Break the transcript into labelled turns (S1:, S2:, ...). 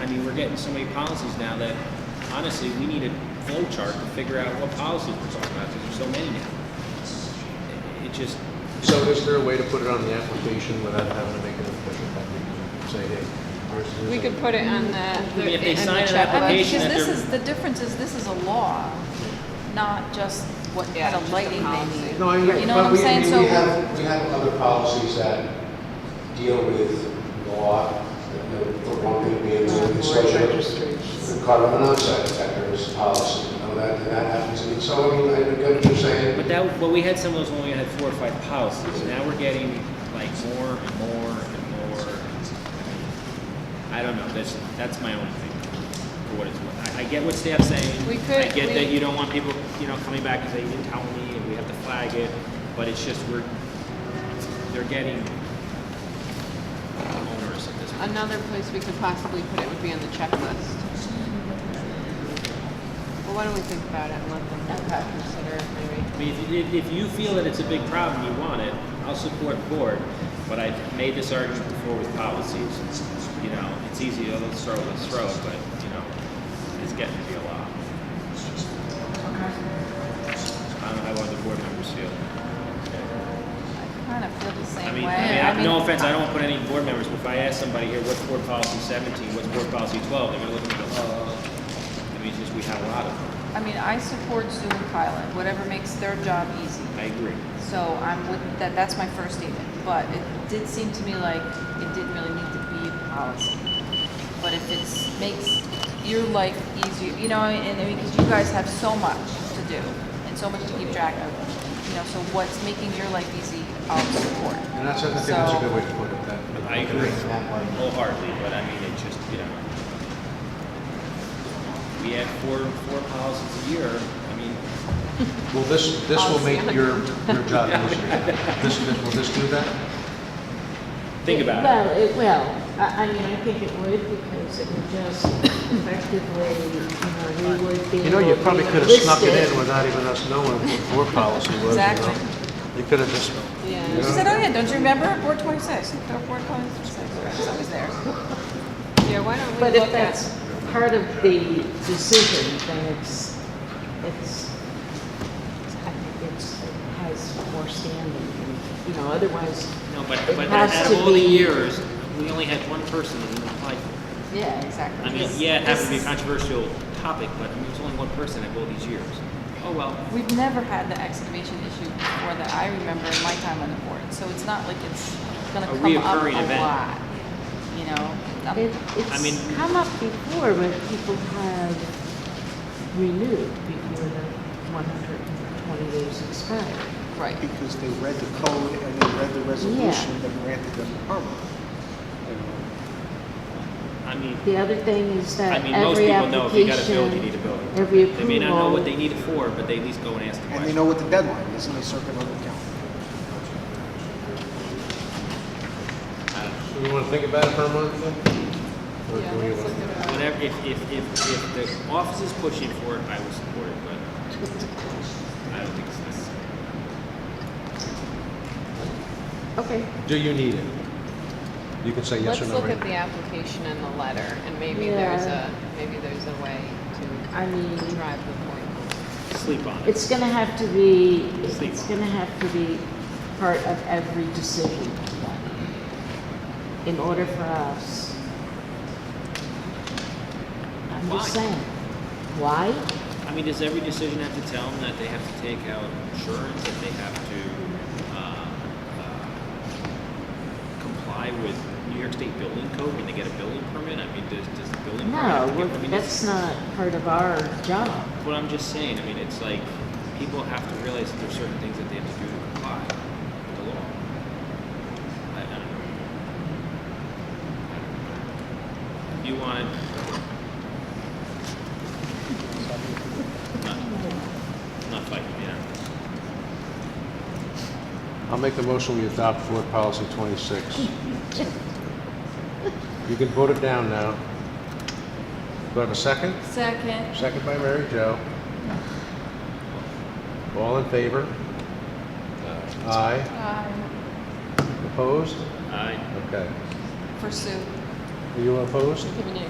S1: I mean, we're getting so many policies now that honestly, we need a flow chart to figure out what policies we're talking about, because there's so many now. It- It just,
S2: So is there a way to put it on the application without having to make an official copy? Say, hey, here's- here's
S3: We
S2: a-
S3: could put it on the.
S1: mean, if they
S3: in the
S1: sign an
S3: chat.
S4: I mean,
S1: application
S4: because
S1: that
S4: this
S1: they're-
S4: is, the difference is this is a law, not just what
S3: Yeah,
S4: kind
S3: just
S4: of
S3: a
S4: lighting
S3: policy.
S4: they need.
S2: No, I agree.
S4: You know what
S2: but
S4: I'm
S2: we-
S4: saying?
S2: we-
S4: So-
S2: we
S5: We
S2: have-
S5: have, we have other policies that deal with law, the the one thing being the legislature. The carbon monoxide detectors policy, you know, that, and that happens. I mean, so, I mean, I get what you're saying.
S1: but that, but we had some of those when we had four or five policies. Now we're getting like more and more and more. I don't know, that's, that's my own thing, for what it's worth. I, I get what staff's saying.
S3: We
S1: I
S3: could-
S1: get that
S3: we-
S1: you don't want people, you know, coming back and saying, you didn't tell me, and we have to flag it, but it's just, we're, they're getting onerous at this point.
S3: Another place we could possibly put it would be on the checklist. Well, why don't we think about it and let them consider it maybe?
S1: I mean, if, if, if you feel that it's a big problem, you want it, I'll support board, but I've made this argument before with policies. You know, it's easy, oh, let's throw, let's throw it, but, you know, it's getting to be a lot. I don't know how other board members feel.
S4: I kind of feel the
S1: I
S4: same
S1: mean,
S4: way.
S1: I mean, I- no
S4: mean,
S1: offense, I don't want to put any board members, but if I ask somebody here, what's board policy seventeen, what's board policy twelve, they're gonna look at me and go, oh. I mean, it's just, we have a lot of them.
S4: I mean, I support Zoom pilot, whatever makes their job easy.
S1: I agree.
S4: So I'm with, that, that's my first statement, but it did seem to me like it didn't really need to be a policy. But if it's, makes your life easier, you know, and, and because you guys have so much to do and so much to keep track of, you know, so what's making your life easy, I'll support.
S2: And that's, I think that's a
S4: So-
S2: good way to put it, that.
S1: I agree wholeheartedly, but I mean, it just, you know. We have four, four policies a year, I mean,
S2: Well, this, this will make your, your job easier. This, this, will this do that?
S1: think about it.
S6: Well, it will. I, I mean, I think it would because it would just effectively, you know, we would be.
S2: You know, you probably could have snuck it in without even us knowing what board policy was, you
S4: Exactly.
S2: know? You could have just,
S3: Yeah.
S4: She said, oh yeah, don't you remember, Board twenty-six, They're Board twenty-six, it's always there.
S3: Yeah, why don't
S6: But
S3: we
S6: if
S3: look at?
S6: that's part of the decision, then it's, it's, I think it's, it has more standing. You know, otherwise,
S1: No, but,
S6: It
S1: but
S6: has
S1: out
S6: to
S1: of all the
S6: be-
S1: years, we only had one person that applied for it.
S6: yeah,
S4: Exactly.
S1: I mean,
S6: This-
S1: yeah, it happened to be a
S6: this-
S1: controversial topic, but I mean, there's only one person out of all these years. Oh, well,
S4: We've never had the excavation issue before that I remember in my time on the board, so it's not like it's gonna
S1: A
S4: come up
S1: reoccurring
S4: a
S1: event.
S4: lot, you know? Um,
S6: It-
S1: I mean-
S6: It's come up before when people have renewed before the 120 days expired.
S4: Right,
S7: because they read the code and they read the resolution that granted them permit.
S1: I mean,
S6: The other thing is
S1: I
S6: that
S1: mean, most
S6: Uh, every
S1: people know if you got a build, you need a
S6: application,
S1: building.
S6: every
S1: They may not know what they need
S6: approval,
S1: it for, but they at least go and ask the
S7: And they
S1: question.
S7: know what the deadline is, and they circle it on the calendar.
S2: so you want to think about it for a month? then? Or do you want-
S1: Whatever, if, if, if, if the office is pushing for it, I will support it, but I don't think it's necessary.
S6: okay.
S2: Do you need it? You can say yes
S3: Let's
S2: or no.
S3: look at
S2: right?
S3: the application and the letter, and maybe there's a,
S6: Yeah.
S3: maybe there's a way to
S6: I mean,
S3: drive the point.
S1: Sleep on it.
S6: it's going to have to be,
S1: Sleep
S6: it's
S1: on.
S6: going to have to be part of every decision in order for us. I'm just
S1: Why?
S6: saying, why?
S1: I mean, does every decision have to tell them that they have to take out insurance, that they have to uh, uh, comply with New York State building code when they get a building permit? I mean, does, does the building permit? have
S6: No,
S1: to get- I
S6: we're-
S1: mean,
S6: that's not part of our job.
S1: What I'm just saying, I mean, it's like, people have to realize that there's certain things that they have to do to comply with the law. I, I don't know. If you wanted. Not, not fighting, yeah.
S2: I'll make the motion we adopt board policy 26. You can vote it down now. Do I have a second?
S4: second.
S2: Second by Mary Jo. All in favor? Aye.
S4: Um,
S2: Opposed?
S1: Aye.
S2: Okay.
S4: For Sue.
S2: Are you opposed?
S3: Giving you